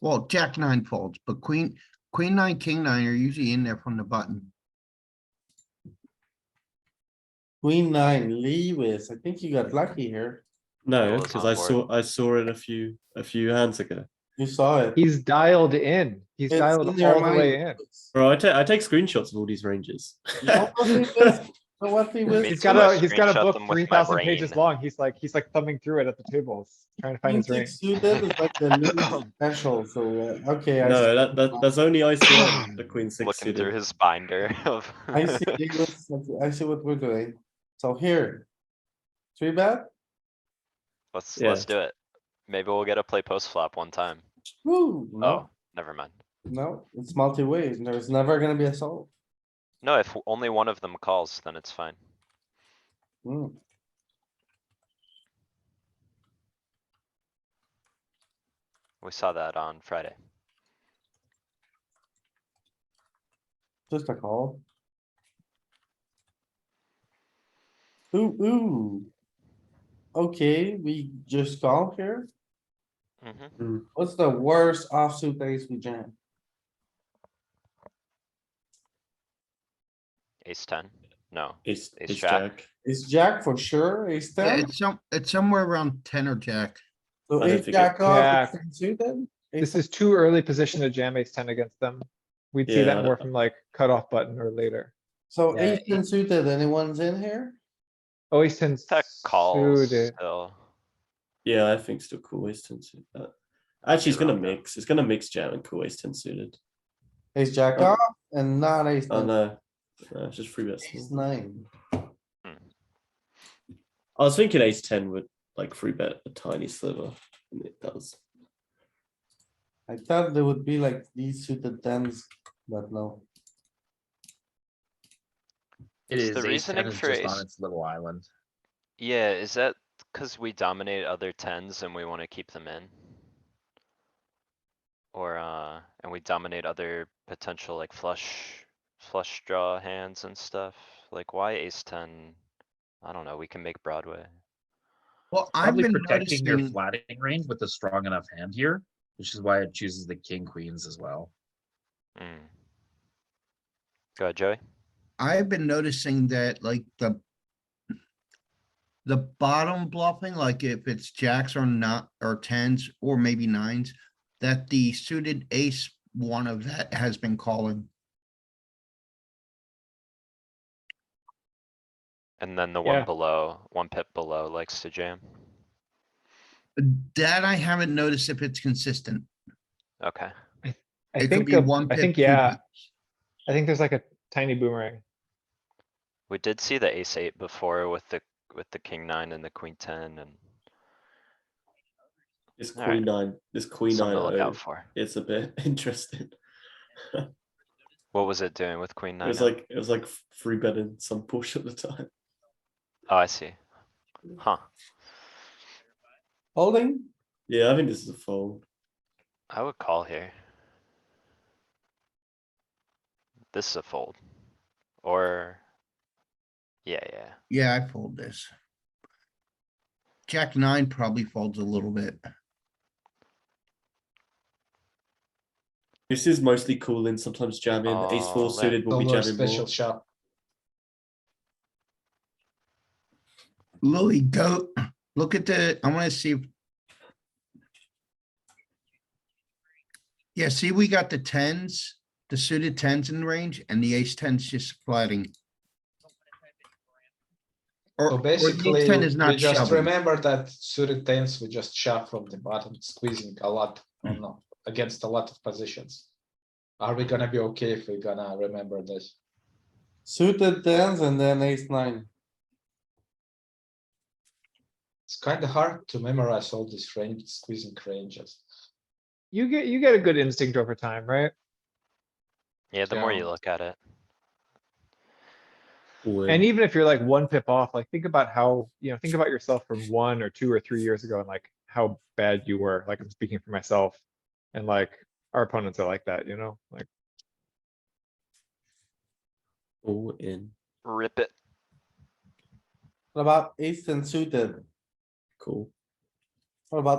Well, jack nine folds, but queen, queen nine, king nine are usually in there from the button. Queen nine, Lewis. I think you got lucky here. No, was because on I board. saw, I saw it a few, a few hands ago. You saw it. He's dialed in. He's It's dialed in your all the way in. mind. Bro, I take, I take screenshots of all these ranges. What was Lewis? So what Lewis? Me He's too, got I a, he's got a screenshot book them with three my thousand pages brain. long. He's like, he's like thumbing through it at the tables, trying to find his Queen ring. six suited is like the Lewis special, so, uh, okay, I No, see, that, that, that's only ICM, the queen six Looking through suited. his binder of. I see, Lewis, I see what we're doing. So here. Three bet, Let's, Yeah. let's do it. Maybe we'll get a play post flop one time. woo, Oh, no, never mind. no, it's multi-way, there's never gonna be a solve. No, if only one of them calls, then it's fine. Hmm. We saw that on Friday. Just a call. Ooh, ooh. Okay, we just call here. hmm What's the worst offsuit ace we jam? Ace ten? No. Ace, Ace ace jack. jack. Is jack for sure, ace Yeah, ten? It's some, it's somewhere around ten or jack. So I don't ace think it- jack off, Jack. ace ten suited? This is too early position to jam ace ten against them. We'd see Yeah. that more from like cutoff button or later. So Yeah. ace ten suited, anyone's in here? Oh, ace ten That calls suited. still. Yeah, I think still cool ace ten suited. Uh, Actually, it's You're gonna wrong, though. mix, it's gonna mix jam and cool ace ten suited. Ace jack Oh. off and not ace Oh ten, no, no, it's just three bets. ace nine. I was thinking ace ten would like three bet a tiny sliver, and it does. I thought there would be like these suited tens, but no. It It's is. the ace reasoning ten is for just ace- on its little island. Yeah, is that cuz we dominate other tens and we wanna keep them in? Or, uh, and we dominate other potential like flush, flush draw hands and stuff? Like why ace ten? I don't know, we can make Broadway. Well, I've Probably been protecting your noticing, flattening range with a strong enough hand here, which is why it chooses the king queens as well. Mm. Go ahead, Joey. I've been noticing that like the the bottom bluffing, like if it's jacks or not, or tens, or maybe nines, that the suited ace, one of that has been calling. And then the one Yeah. below, one pip below likes to jam. That I haven't noticed if it's consistent. Okay, I It could think, be a- one I pip, think, two yeah, pips. I think there's like a tiny boomerang. we did see the ace eight before with the, with the king nine and the queen ten and This All right. queen nine, this queen something nine, to look oh, out for. it's a bit interesting. What was it doing with queen It nine? was up? like, it was like three betting some push at the time. Oh, I see. Huh, Holding? Yeah, I think this is a fold. I would call here. This is a fold. Or, yeah, yeah, Yeah, I fold this. Jack nine probably folds a little bit. This is mostly cooling, sometimes jamming. Ace Oh, four that- suited will be Although a jamming special more. shot. Louis, go, look at the, I wanna see. if- Yeah, see, we got the tens, the suited tens in range and the ace tens just flatting. Or, So or the ace basically, ten is we not just shoving. remember that suited tens, we just shove from the bottom, squeezing a lot, or Mm. no, against a lot of positions. Are we gonna be okay if we're gonna remember this? Suited tens and then ace nine. It's kinda hard to memorize all these range, squeezing ranges. You get, you get a good instinct over time, right? yeah, the more you Yeah. look at it. Cooling. And even if you're like one pip off, like think about how, you know, think about yourself from one or two or three years ago and like how bad you were, like I'm speaking for myself. And like our opponents are like that, you know, like All in, Rip it. What about ace ten suited? cool. What about